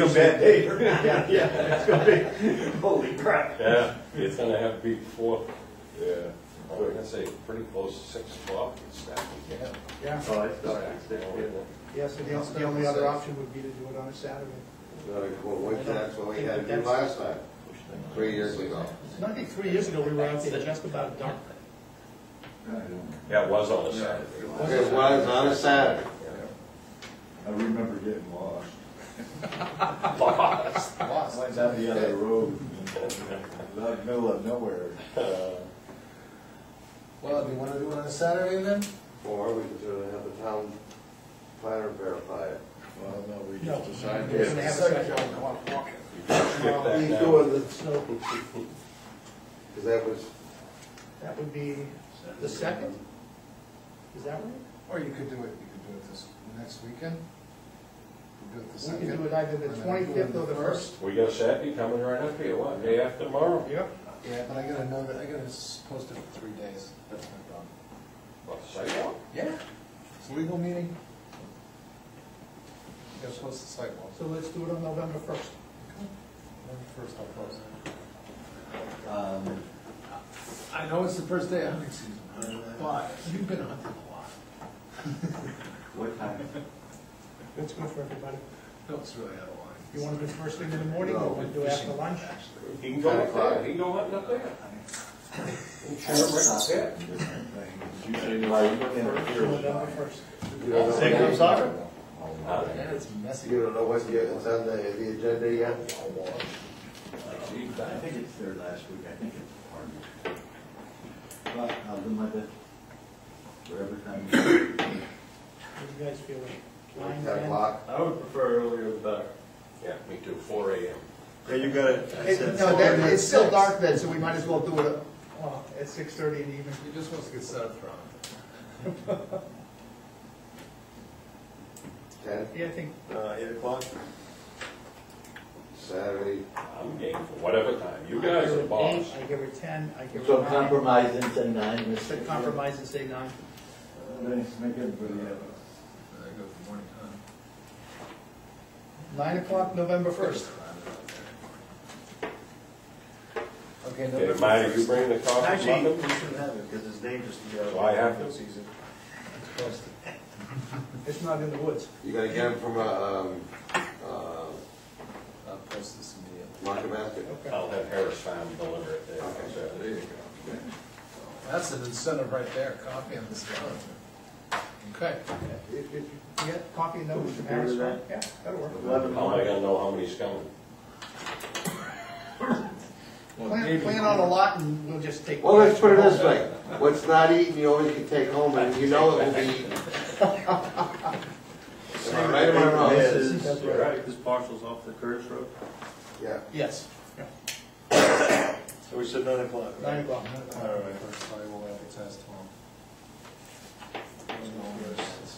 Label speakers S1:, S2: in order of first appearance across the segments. S1: It's gonna be a bad day. Yeah, yeah, it's gonna be, holy crap.
S2: Yeah, it's gonna have to be before,
S1: Yeah.
S2: I was gonna say, pretty close to six o'clock, it's that we can.
S3: Yeah,
S1: Oh, it's not, it's
S2: You know,
S1: different.
S3: yes, and the only- the only other option would be to do it on a Saturday.
S4: Well, wait, that's what we had to do last time, three years ago.
S3: No, I think three years ago, we were out there just about dark.
S2: Yeah, it was on a Saturday.
S4: It was on a Saturday.
S5: I remember getting lost. Lost. Went down the other road, in the middle of nowhere.
S6: Well, do you want to do it on a Saturday then?
S4: Or we could do it, have the town planner verify it.
S5: Well, no, we
S3: No.
S5: just decided.
S3: We're gonna have a second one, come on, walk.
S2: Skip
S4: You
S2: that
S4: do
S2: now.
S4: it, it's no, because that was,
S3: That would be the second? Is that right?
S6: Or you could do it, you could do it this, next weekend? You could do it the
S3: We
S6: second.
S3: could do it either the
S6: and then do it
S3: 25th or the
S2: We got Saturday coming right up here, what, day after tomorrow?
S3: Yep.
S6: Yeah, but I gotta know that, I gotta s- post it for three days, that's my problem.
S2: What, sidewalk?
S6: Yeah. It's a legal meeting. You gotta post the sidewalk.
S3: So let's do it on November first.
S6: First I'll post it. Um, I know it's the first day of hunting season, but you've been hunting a lot.
S5: What time?
S3: That's good for everybody.
S6: No, it's really out of line.
S3: You want to do first thing in the morning, or want to do after lunch?
S2: He can go up there, he can go hunting up there. He can turn right up there.
S5: You say you like interference.
S3: November first.
S4: you don't know.
S6: Say
S4: what-
S6: I'm sorry?
S2: Huh?
S6: Yeah, it's messy.
S4: You don't know what's yet, what's on the, the agenda yet?
S2: Gee,
S5: I think it's there last week, I think it's part of it. But uh, I'll do my best for everything.
S3: What do you guys feel? Nine,
S4: Ten
S3: ten?
S4: o'clock?
S1: I would prefer earlier the better.
S2: Yeah, me too, four AM.
S1: Yeah, you got it. I
S3: It-
S1: said
S3: No,
S1: four.
S3: that, it's still dark then, so we might as well do it at, well, Oh, at six thirty in the evening.
S6: He just wants to get set up for it.
S4: Ten,
S3: Yeah, I think,
S1: Uh, eight o'clock?
S4: Saturday,
S2: I'm game for whatever time, you guys are boss.
S3: I give her ten, I give
S7: So
S3: her nine.
S7: compromise into nine, Mr.
S3: So
S7: Chair.
S3: compromise and say nine.
S5: Let's make everybody have a
S6: I go for morning time.
S3: Nine o'clock, November first.
S2: Okay,
S6: Okay, November
S2: Marty, you
S6: first.
S2: bring the coffee
S1: Actually,
S2: muffin?
S1: we should have it, because it's dangerous to get out.
S2: So I have to-
S1: Season.
S3: It's not in the woods.
S4: you gotta get them from, uh, um, uh,
S6: I'll post this immediately.
S4: market basket.
S3: Okay.
S2: I'll have Harris Farm deliver it there.
S4: Okay.
S2: So,
S4: There you go.
S6: That's an incentive right there, copy on this one. Okay.
S3: If, if, yeah, copy and notes from Harris.
S7: that?
S3: Yeah, that'll work.
S7: Eleven
S2: How am I
S7: o'clock.
S2: gonna know how many's coming?
S3: Plan, plan on a lot and we'll just take.
S4: Well, let's put it this way, what's not eaten, you always can take home, and you know it will be eaten. Am I right or am I wrong?
S1: Yeah, this is-
S3: That's
S1: you're right, this parcel's off the Curtis Road.
S4: Yeah.
S3: Yes,
S1: So we said nine o'clock, right?
S3: nine o'clock.
S6: All right. First, I will advertise tomorrow. There's no worries.
S1: This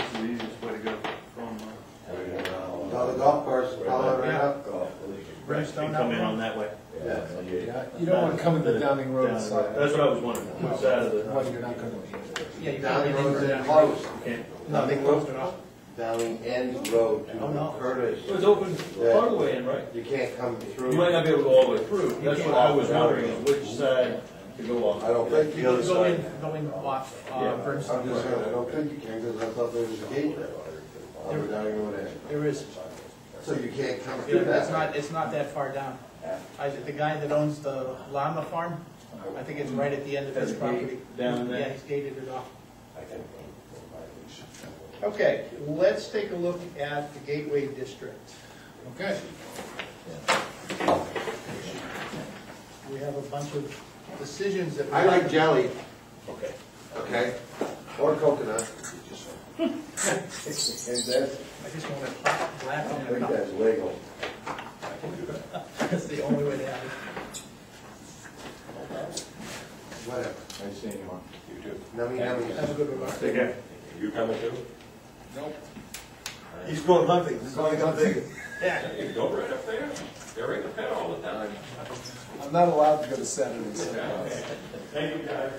S1: is the easiest way to go from, uh,
S4: Now the golf course, follow it right up.
S3: Brimstone
S1: you come in
S3: out.
S1: on that way.
S6: Yeah, You don't want to come in the Downing Road side.
S1: That's what I was wondering, which side of the,
S6: Well, you're not gonna be.
S3: Yeah, you got
S4: Downing
S3: it.
S4: Road's in closed.
S1: okay.
S4: Nothing closed at all? Downing End Road
S1: Oh,
S4: to
S3: no.
S1: It
S4: Curtis.
S1: was open part of the way in, right?
S4: You can't come
S1: You might
S4: through.
S1: not be able to go all the way through, that's what I was wondering, is which side to go
S4: I
S1: on.
S4: don't think
S3: You
S4: the other
S3: can go
S4: side.
S3: in, go in off, uh,
S1: Yeah.
S4: I'm
S3: Brimstone.
S4: just saying, I don't think you can, because I thought there was a gate there. Oh, On the Downing Road end.
S3: There is,
S4: So you can't come through
S3: it's
S4: that
S3: not,
S4: way.
S3: it's not that far down. I, the guy that owns the llama farm, I think it's right at the end of his property.
S1: down there.
S3: Yeah, he's gated it off.
S2: I can. provide
S3: Okay, let's take a look at the Gateway District.
S6: Okay.
S3: We have a bunch of decisions that. we-
S4: I like jelly,
S2: Okay.
S4: okay? Or coconut.
S5: And that's,
S3: I just want to laugh
S5: I
S3: on
S5: think
S3: it.
S5: that's legal.
S3: That's the only way to have it.
S4: Whatever.
S5: I seen one.
S2: You too.
S4: Nummy, nummy.
S3: Have a good one. Mark.
S1: Okay.
S2: You coming too?
S6: Nope.
S1: He's going hunting, he's going hunting.
S3: Yeah.
S2: Yeah, you go right up there. You're in the pit all the time.
S6: I'm not allowed to go to Saturdays. so
S2: Thank you, guys.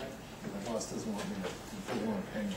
S6: My boss doesn't want me to, he doesn't want to pay me.